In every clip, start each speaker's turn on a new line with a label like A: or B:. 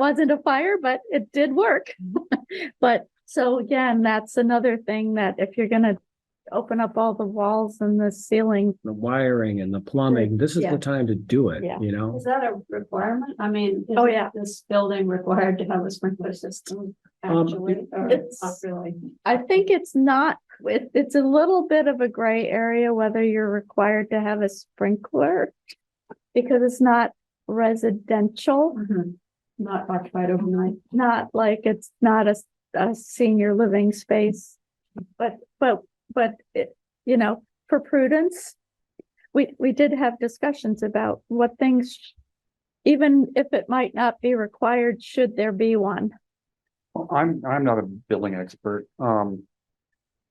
A: wasn't a fire, but it did work. But so again, that's another thing that if you're gonna open up all the walls and the ceiling,
B: the wiring and the plumbing, this is
A: Yeah.
B: the time to do it,
A: Yeah.
B: you know?
C: Is that a requirement? I mean. is
A: Oh, yeah.
C: This building required to have a sprinkler system
B: Um,
C: actually, or
A: it's-
C: not really?
A: I think it's not, it, it's a little bit of a gray area whether you're required to have a sprinkler. Because it's not residential,
C: Mhm. Not occupied overnight.
A: not like it's not a, s- a senior living space. But, but, but, it- you know, for prudence, we, we did have discussions about what things, sh- even if it might not be required, should there be one?
D: Well, I'm, I'm not a building expert. Um.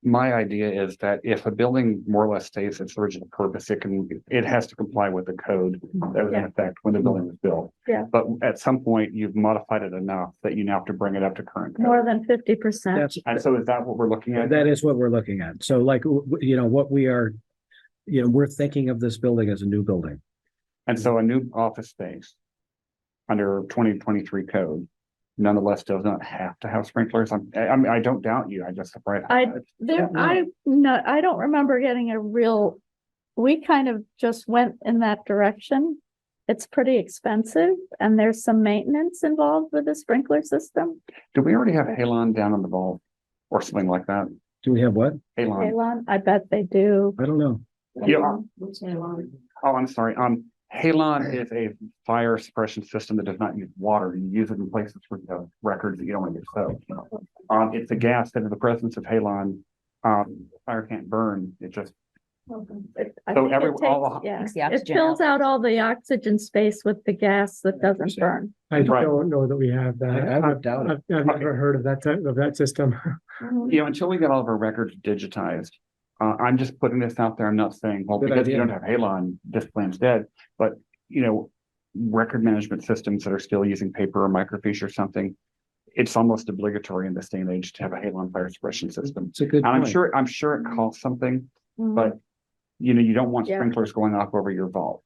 D: My idea is that if a building more or less stays its original purpose, it can, it has to comply with the code that was in
A: Yeah. Mm-hmm.
D: effect when the building was built.
A: Yeah.
D: But at some point, you've modified it enough that you now have to bring it up to current. code.
A: More than fifty percent.
B: That's,
D: And so is that what we're looking at?
B: that is what we're looking at. So like, w- w- you know, what we are, you know, we're thinking of this building as a new building.
D: And so a new office space. Under twenty twenty-three code nonetheless does not have to have sprinklers. I'm, I, I mean, I don't doubt you. I just.
A: I- There,
D: Yeah.
A: I, no, I don't remember getting a real, we kind of just went in that direction. It's pretty expensive and there's some maintenance involved with the sprinkler system.
D: Do we already have Halon down on the ball? Or something like that?
B: Do we have what?
D: Halon.
A: Elon, I bet they do.
B: I don't know.
D: Yeah.
C: We'll say long.
D: Oh, I'm sorry. Um, Halon is a fire suppression system that does not use water. You use it in places where you have records that you don't want to soaked. Um, it's a gas that in the presence of Halon, um, fire can't burn. It just,
A: It- I
D: So
A: think it
D: every- all-
A: takes- yeah.
E: Takes the
A: It
E: oxygen
A: fills out all the oxygen space with the gas that doesn't burn.
F: I
D: Right.
F: don't know that we have that.
B: I- I would
F: I've-
B: doubt it.
F: I've, I've never heard of that type of that system.
D: you know, until we get all of our records digitized. Uh, I'm just putting this out there. I'm not saying, well,
B: Good
D: because you
B: idea.
D: don't have Halon, this plan's dead, but, you know. Record management systems that are still using paper or microfiche or something. It's almost obligatory in this day and age to have a Halon fire suppression system.
B: It's a good
D: And I'm
B: point.
D: sure, I'm sure it costs something,
A: Mhm.
D: but you know, you don't want
A: Yeah.
D: sprinklers going off over your vault.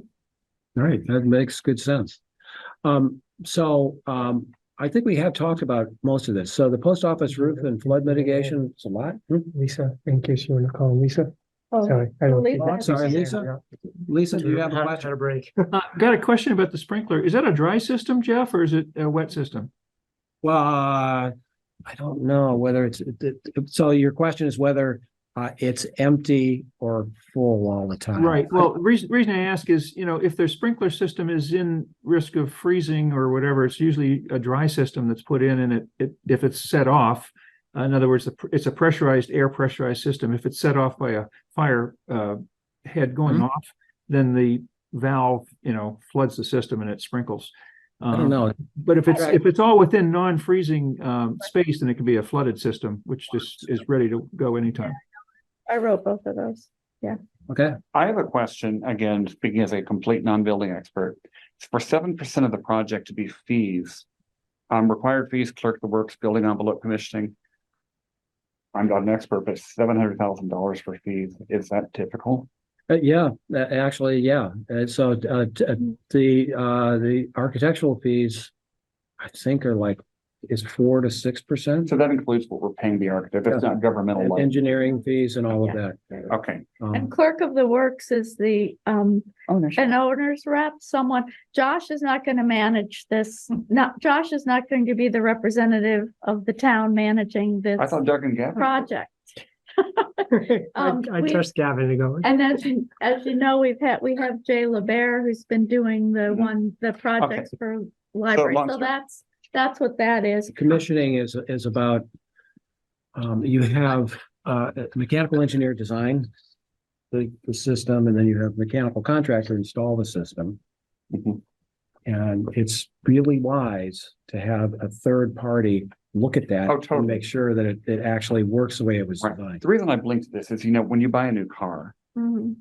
B: All right, that makes good sense. Um, so, um, I think we have talked about most of this. So the post office roof and flood mitigation, it's a lot.
F: Mm-hmm. Lisa, in case you want to call Lisa,
A: Oh,
F: sorry. I don't
A: Lisa.
F: think-
A: I'm
B: sorry, Lisa? Lisa,
F: Mm-hmm.
B: do you have a question?
F: break.
G: Uh, got a question about the sprinkler. Is that a dry system, Jeff, or is it a wet system?
B: Well, uh, I don't know whether it's, it- it- so your question is whether uh, it's empty or full all the time.
G: Right. Well, reason, reason I ask is, you know, if their sprinkler system is in risk of freezing or whatever, it's usually a dry system that's put in and it, it, if it's set off. uh, In other words, the pr- it's a pressurized, air pressurized system. If it's set off by a fire, uh, head
B: Mm-hmm.
G: going off, then the valve, you know, floods the system and it sprinkles. Um,
B: I don't
G: uh-huh.
B: know.
G: But if it's,
B: Right.
G: if it's all within non-freezing um space, then it can be a flooded system, which just is ready to go anytime.
A: I wrote both of those.
B: Okay.
D: I have a question, again, speaking as a complete non-building expert. For seven percent of the project to be fees, um, required fees, clerk of the works, building envelope commissioning. I'm not an expert, but seven hundred thousand dollars for fees, is that typical?
B: Uh, yeah, uh, actually, yeah. And so uh, t- uh, the uh, the architectural fees, I think, are like is four to six percent.
D: So oh that includes what we're paying the architect, that's not governmental. money.
B: Engineering fees and all of that.
D: Okay,
A: And
B: Um,
A: clerk of the works is the, um,
E: ownership.
A: an owner's rep, someone, Josh is not going to manage this. Not, Josh is not going to be the representative of the town managing this
D: I thought Doug and Gavin.
A: project.
F: I
A: Um,
F: I
A: we-
F: trust Gavin to go.
A: And as, you- as you know, we've had, we have Jay LaBear who's been doing the
D: Mhm.
A: one, the projects for library.
D: long
A: So
D: story-
A: that's, that's what that is.
B: Commissioning is is about um, you have uh, a mechanical engineer design the the system, and then you have mechanical contractor install the system.
D: Mhm.
B: And it's really wise to have a third party look at that
D: Oh,
B: and
D: totally.
B: make sure that it it actually works the way it was
D: Right.
B: designed.
D: The reason I blinked this is, you know, when you buy a new car,
A: Mhm.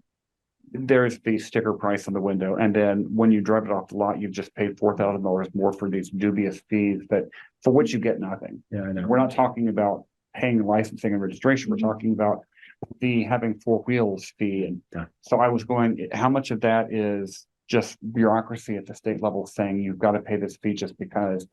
D: there is the sticker price on the window, and then when you drive it off the lot, you've just paid four thousand dollars more for these dubious fees that for which you get nothing.
B: Yeah, I know.
D: We're not talking about paying licensing and registration. We're talking about the having four wheels fee.
B: Yeah.
D: And so I was going, how much of that is just bureaucracy at the state level saying you've got to pay this fee just because